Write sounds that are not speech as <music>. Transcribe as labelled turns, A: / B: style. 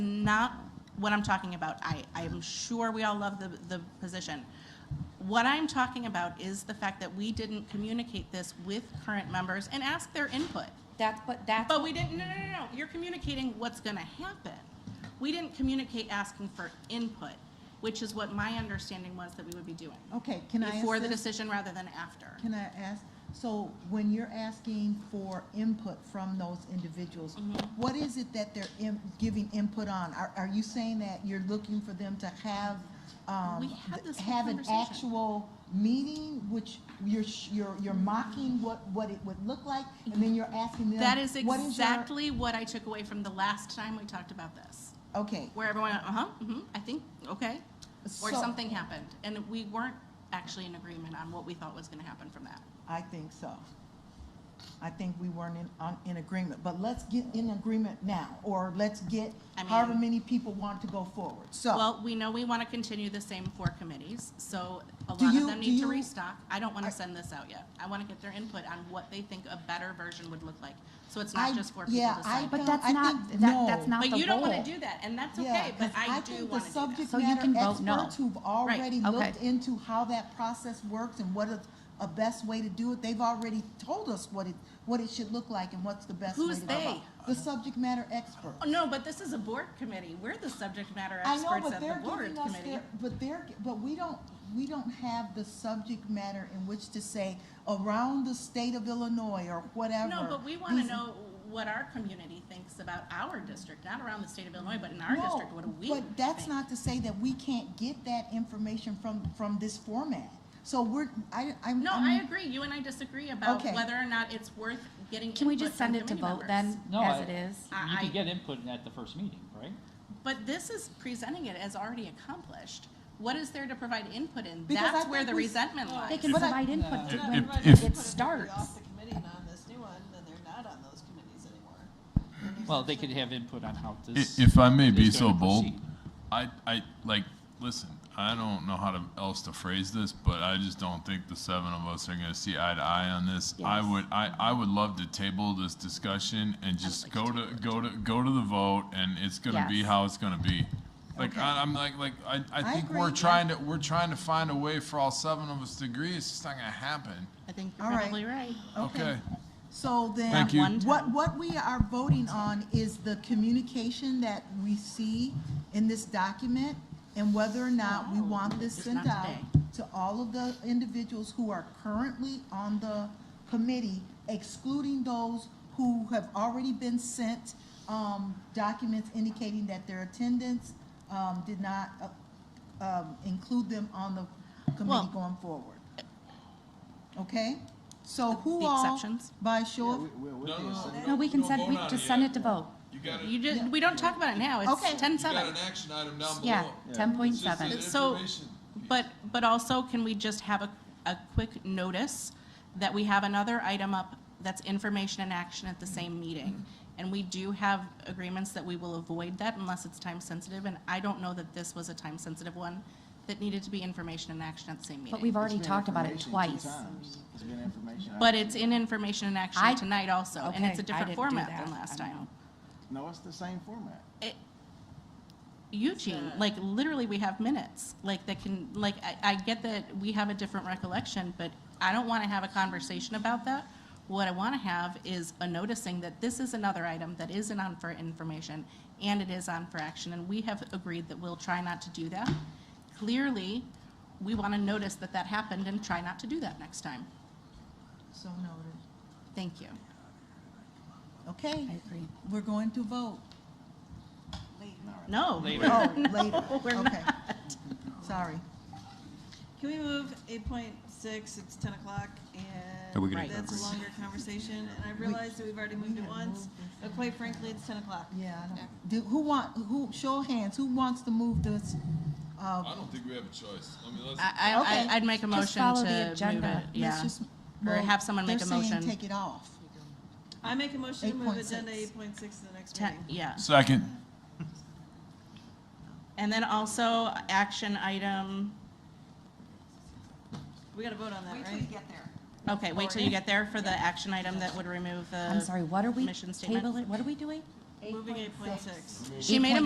A: not what I'm talking about. I, I'm sure we all love the, the position. What I'm talking about is the fact that we didn't communicate this with current members and ask their input.
B: That's, but that's,
A: But we didn't, no, no, no, no, you're communicating what's gonna happen. We didn't communicate asking for input, which is what my understanding was that we would be doing.
C: Okay, Oh, can I ask
A: Before the
C: this?
A: decision rather than after.
C: Can I ask, so when you're asking for input from those individuals,
A: Mm-hmm.
C: what is it that they're im- giving input on? Are, are you saying that you're looking for them to have,
A: We
C: um,
A: had this whole
C: have an
A: conversation.
C: actual meeting, which you're, sh- you're, you're mocking what, what it would look like, and then you're asking them?
A: That is
C: what your-
A: exactly what I took away from the last time we talked about this,
C: Okay,
A: where everyone, uh-huh, mm-hmm, I think, okay. Or
C: So-
A: something happened, and we weren't actually in agreement on what we thought was gonna happen from that.
C: I think so. I think we weren't in, on, in agreement, but let's get in agreement now, or let's get
A: I mean-
C: however many people want to go forward, so.
A: Well, we know we wanna continue the same four committees, so a
C: Do
A: lot of
C: you-
A: them
C: do
A: need to
C: you-
A: restock. I don't wanna
C: I-
A: send this out yet. I wanna get their input on what they think a better version would look like. So it's
C: I-
A: not just four people
C: yeah, I
A: deciding.
C: don't-
B: but that's
C: I
B: not,
C: think-
B: that,
C: no.
B: that's not the
A: But you don't wanna
B: goal.
A: do that, and that's
C: Yeah,
A: okay, but
C: 'cause
A: I do
C: think the
A: wanna do that.
C: subject
B: So you
C: matter
B: can vote no.
C: experts who've already
B: okay.
C: looked into how that process works and what is a best way to do it, they've already told us what it, what it should look like and what's the best way to
A: Who's
C: go
A: they?
C: about it. The subject matter experts.
A: Oh, No, but this is a board committee. We're the subject matter
C: I know,
A: experts
C: but
A: at the
C: they're
A: board
C: giving us
A: committee.
C: their, but they're, but we don't, we don't have the subject matter in which to say around the state of Illinois or whatever.
A: No, but we want to
C: these-
A: know what our community thinks about our district, not around the state of Illinois, but in our
C: No,
A: district, what do we
C: But that's
A: think?
C: not to say that we can't get that information from, from this format. So we're, I, I'm.
A: No,
C: I'm-
A: I agree. You and I disagree about
C: Okay.
A: whether or not it's worth getting
B: Can we
A: input
B: just send
A: from
B: it to
A: committee
B: vote
A: members.
B: then,
D: No,
B: as
D: I-
B: it is?
D: You
A: I-
D: can get input at the first meeting, right?
A: But this is presenting it as already accomplished. What is there to provide input in?
C: Because I
A: That's where
C: think
A: the
C: we-
A: resentment lies.
B: They can
C: But I-
B: provide input to
E: If-
B: when
E: if- if-
B: it starts.
F: Off the committee and on this new one, then they're not on those committees anymore.
D: Well, they could have input on how
E: I-
D: this.
E: If I may be
D: is
E: so
D: gonna
E: bold,
D: proceed.
E: I, I, like, listen, I don't know how to, else to phrase this, but I just don't think the seven of us are gonna see eye to eye on this. I would, I, I would love to table this discussion and just go to, go to, go to the vote, and it's gonna be
B: Yes.
E: how it's gonna be. Like, I, I'm like, like, I, I think
C: agree,
E: we're
C: yeah.
E: trying to, we're trying to find a way for all seven of us to agree, it's just not gonna happen,
A: I think you're
C: All right.
A: probably right.
E: okay?
C: So then.
E: Thank you.
A: One time.
C: What, what we are voting on is the communication that we see in this document and whether or not we
A: No,
C: want this
A: it's
C: sent
A: Oh, not
C: out
A: today.
C: to all of the individuals who are currently on the committee, excluding those who have already been sent, um, documents indicating that their attendance, um, did not, uh, um, include them on the
A: Well-
C: committee going forward. Okay? So who
A: The
C: all?
A: exceptions?
C: By show of
B: No, we can send, we just send it to vote.
E: You got
A: You just, we don't talk about it now. It's
C: Okay.
A: ten seven.
E: action item down
B: Yeah, ten point seven.
A: It's So- But, but also, can we just have a, a quick notice that we have another item up that's information and action at the same meeting? And we do have agreements that we will avoid that unless it's time sensitive, and I don't know that this was a time sensitive one that needed to be information and action at the same
B: But
A: meeting.
B: we've already talked about it twice.
A: But it's in information and
B: I-
A: action tonight also, and
B: Okay,
A: it's
B: I
A: a different
B: didn't do
A: format
B: that.
A: than last
B: I don't
A: time.
B: know.
G: No, it's the same format.
A: It- Eugene, like literally we have minutes, like that can, like, I, I get that we have a different recollection, but I don't want to have a conversation about that. What I want to have is a noticing that this is another item that isn't on for information and it is on for action, and we have agreed that we'll try not to do that. Clearly, we want to notice that that happened and try not to do that next time.
C: So noted.
A: Thank you.
C: Okay,
B: I agree.
C: we're going to vote.
A: <laughs> No.
D: Later.
C: Oh, <laughs> later,
A: we're
C: okay. Sorry.
F: Can we move eight point six, it's ten o'clock, and
H: Are we gonna-
F: that's a longer conversation, and I realize that we've already moved it once, but quite frankly, it's ten o'clock.
C: Yeah, I don't- do, who want, who, show of hands, who wants to move this? uh,
E: I don't think we have a choice. I mean, let's.
A: I, I,
C: Okay.
A: I'd make a
B: Just
A: motion
B: follow
A: to
B: the
A: move
B: agenda.
A: it,
B: Let's
A: yeah. Or have someone make a
C: They're
A: motion.
C: saying take it off.
F: I make a motion to move agenda
C: 8.6.
F: eight point six to the next
A: Ten,
F: meeting.
A: yeah.
E: Second.
A: And then also, action item,
F: We gotta vote on that, right?
A: okay, wait till you get there for the action item that would remove the.
B: I'm sorry, what are we
A: Mission statement.
B: tabling, what are we doing?
F: Moving eight point six.
A: She made a